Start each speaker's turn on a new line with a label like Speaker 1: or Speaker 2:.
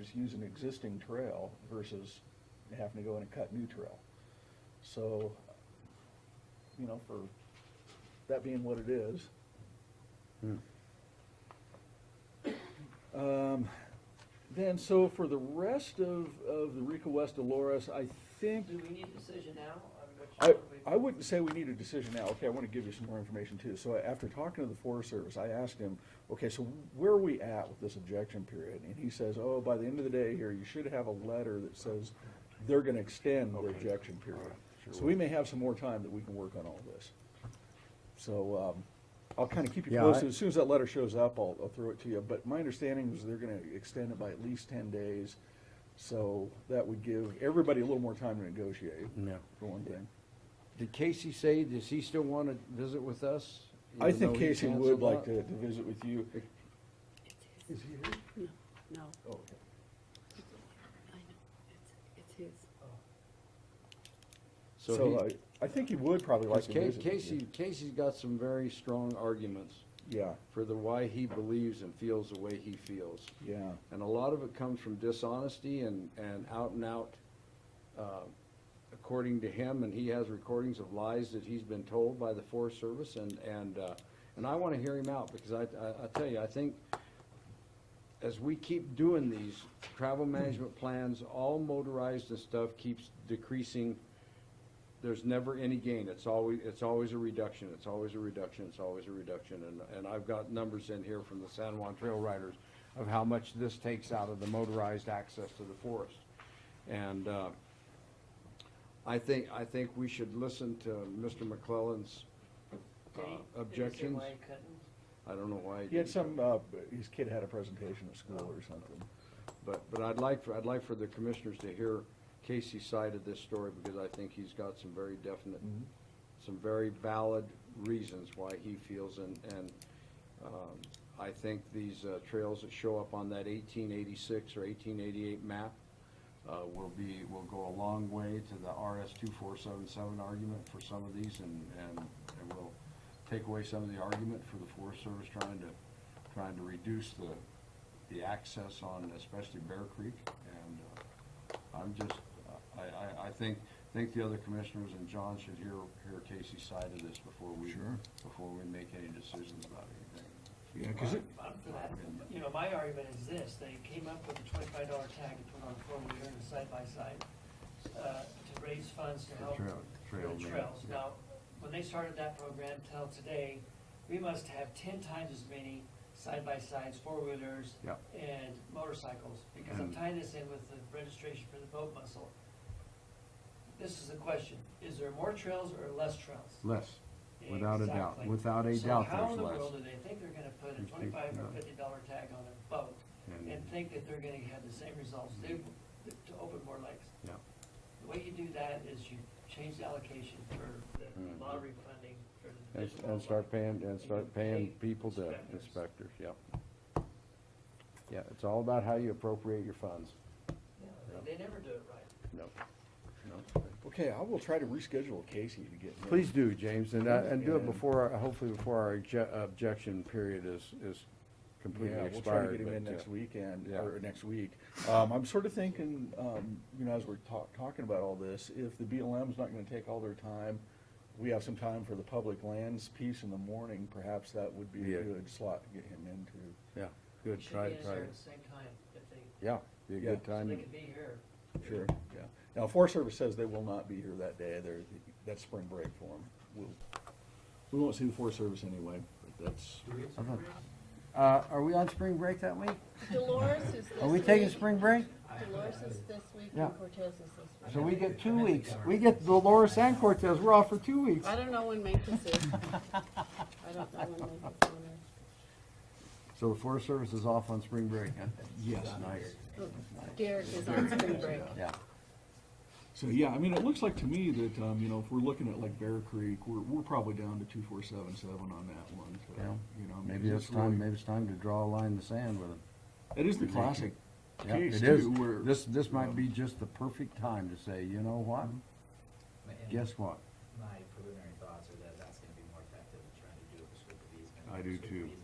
Speaker 1: is use an existing trail versus having to go in and cut new trail. So, you know, for that being what it is. Um, then, so for the rest of, of the Rico West Dolores, I think,
Speaker 2: Do we need a decision now on which?
Speaker 1: I,
Speaker 2: one we-
Speaker 1: I wouldn't say we need a decision now, okay, I wanna give you some more information too. So after talking to the Forest Service, I asked him, okay, so where are we at with this objection period? And he says, oh, by the end of the day here, you should have a letter that says they're gonna extend their objection period. So we may have some more time that we can work on all this. So, um, I'll kinda keep you
Speaker 3: Yeah,
Speaker 1: posted,
Speaker 3: I-
Speaker 1: as soon as that letter shows up, I'll, I'll throw it to you. But my understanding is they're gonna extend it by at least ten days. So that would give everybody a little more time to negotiate,
Speaker 3: Yeah.
Speaker 1: for one thing.
Speaker 3: Did Casey say, does he still want to visit with us?
Speaker 1: I
Speaker 3: even
Speaker 1: think
Speaker 3: though he
Speaker 1: Casey would
Speaker 3: canceled
Speaker 1: like to,
Speaker 3: that?
Speaker 1: to visit with you. Is he here?
Speaker 4: No,
Speaker 1: Oh, okay.
Speaker 4: I know, it's, it's his.
Speaker 3: So
Speaker 1: So
Speaker 3: he,
Speaker 1: I, I think he would probably like
Speaker 3: because
Speaker 1: to visit with you.
Speaker 3: Casey, Casey's got some very strong arguments
Speaker 1: Yeah,
Speaker 3: for the why he believes and feels the way he feels.
Speaker 1: yeah,
Speaker 3: And a lot of it comes from dishonesty and, and out and out, uh, according to him, and he has recordings of lies that he's been told by the Forest Service, and, and, uh, and I wanna hear him out, because I, I, I tell you, I think as we keep doing these travel management plans, all motorized and stuff keeps decreasing. There's never any gain, it's always, it's always a reduction, it's always a reduction, it's always a reduction, and, and I've got numbers in here from the San Juan Trail Riders of how much this takes out of the motorized access to the forest. And, uh, I think, I think we should listen to Mr. McClellan's uh,
Speaker 2: Did he- did he say
Speaker 3: objections.
Speaker 2: why he couldn't?
Speaker 3: I don't know why.
Speaker 1: he had
Speaker 3: didn't.
Speaker 1: some, uh, his kid had a presentation at school or something.
Speaker 3: But, but I'd like, for I'd like for the commissioners to hear Casey's side of this story, because I think he's got some very definite,
Speaker 1: Mhm.
Speaker 3: some very valid reasons why he feels, and, and, um, I think these uh, trails that show up on that eighteen eighty-six or eighteen eighty-eight map, uh, will be, will go a long way to the RS two four seven seven argument for some of these, and, and, and will take away some of the argument for the Forest Service trying to, trying to reduce the, the access on especially Bear Creek, and, uh, I'm just, I, I, I think, think the other commissioners and John should hear, hear Casey's side of this before we,
Speaker 1: Sure.
Speaker 3: before we make any decisions about anything.
Speaker 1: Yeah, 'cause it,
Speaker 2: I'm for that. You know, my argument is this, they came up with a twenty-five dollar tag to put on four-wheeler and side-by-side, uh, to raise funds to
Speaker 3: The
Speaker 2: help
Speaker 3: trail-
Speaker 2: for
Speaker 3: trail
Speaker 2: the
Speaker 3: man,
Speaker 2: trails.
Speaker 3: yeah.
Speaker 2: Now, when they started that program till today, we must have ten times as many side-by-sides, four-wheelers,
Speaker 3: Yeah.
Speaker 2: and motorcycles, because I'm
Speaker 3: And-
Speaker 2: tying this in with the registration for the boat muscle. This is the question, is there more trails or less trails?
Speaker 3: Less, without a doubt,
Speaker 2: Exactly.
Speaker 3: without a
Speaker 2: So
Speaker 3: doubt
Speaker 2: how in
Speaker 3: there's
Speaker 2: the
Speaker 3: less.
Speaker 2: world do they think they're gonna put a
Speaker 3: You think
Speaker 2: twenty-five or
Speaker 3: not.
Speaker 2: fifty dollar tag on a boat
Speaker 3: And- Mm-hmm.
Speaker 2: and think that they're gonna have the same results, they, to open more lakes?
Speaker 3: Yeah.
Speaker 2: The way you do that is you change the allocation for
Speaker 3: Mhm.
Speaker 2: the lottery funding for the.
Speaker 3: And,
Speaker 2: fish
Speaker 3: and start
Speaker 2: wildlife.
Speaker 3: paying, and start paying people to inspectors, yeah. Yeah, it's all about how you appropriate your funds.
Speaker 2: Yeah, they- They never do it right.
Speaker 3: No. No.
Speaker 1: okay, I will try to reschedule Casey to get here.
Speaker 3: Please do, James, and, uh, and do it
Speaker 1: Yeah.
Speaker 3: before, our- hopefully before our obje- objection period is, is completely
Speaker 1: Yeah,
Speaker 3: expired.
Speaker 1: we'll try to get him in
Speaker 3: but, uh,
Speaker 1: next weekend,
Speaker 3: yeah.
Speaker 1: or next week. Um, I'm sort of thinking, um, you know, as we're talk, talking about all this, if the BLM's not gonna take all their time, we have some time for the public lands piece in the morning, perhaps that would be
Speaker 3: Yeah.
Speaker 1: a good slot to get him into.
Speaker 3: Yeah, good,
Speaker 2: Should
Speaker 3: try,
Speaker 2: be in
Speaker 3: try,
Speaker 2: there
Speaker 3: it.
Speaker 2: at the same time, if they,
Speaker 3: yeah, be a
Speaker 1: Yeah.
Speaker 3: good
Speaker 2: so they
Speaker 3: time,
Speaker 2: could be here.
Speaker 1: Sure. Yeah. Now, Forest Service says they will not be here that day, they're, that's spring break for them. We'll, we won't see the Forest Service anyway, but that's,
Speaker 3: Uh, are we on spring break that week?
Speaker 5: Dolores is this
Speaker 3: Are we taking
Speaker 5: week.
Speaker 3: spring break?
Speaker 5: Dolores is this week
Speaker 3: Yeah.
Speaker 5: and Cortez is this week.
Speaker 3: So we get two weeks, we get Dolores and Cortez, we're off for two weeks.
Speaker 5: I don't know when Memphis is. I don't know when Memphis is.
Speaker 3: So the Forest Service is off on spring break, huh?
Speaker 1: yes.
Speaker 3: Nice.
Speaker 5: Derek is on spring break.
Speaker 3: Yeah.
Speaker 1: So, yeah, I mean, it looks like to me that, um, you know, if we're looking at like Bear Creek, we're, we're probably down to two, four, seven, seven on that one, so,
Speaker 3: Yeah.
Speaker 1: you know. I mean,
Speaker 3: Maybe it's
Speaker 1: really-
Speaker 3: time, maybe it's time to draw a line in the sand with them.
Speaker 1: It is the classic
Speaker 3: Yeah,
Speaker 1: case
Speaker 3: it is.
Speaker 1: too, where.
Speaker 3: This, this
Speaker 1: Yeah.
Speaker 3: might be just the perfect time to say, you know what?
Speaker 6: And
Speaker 3: Guess what?
Speaker 6: My preliminary thoughts are that that's gonna be more effective than trying to do it with scope of easement.
Speaker 3: I do
Speaker 6: Scope of
Speaker 3: too.
Speaker 6: easement um,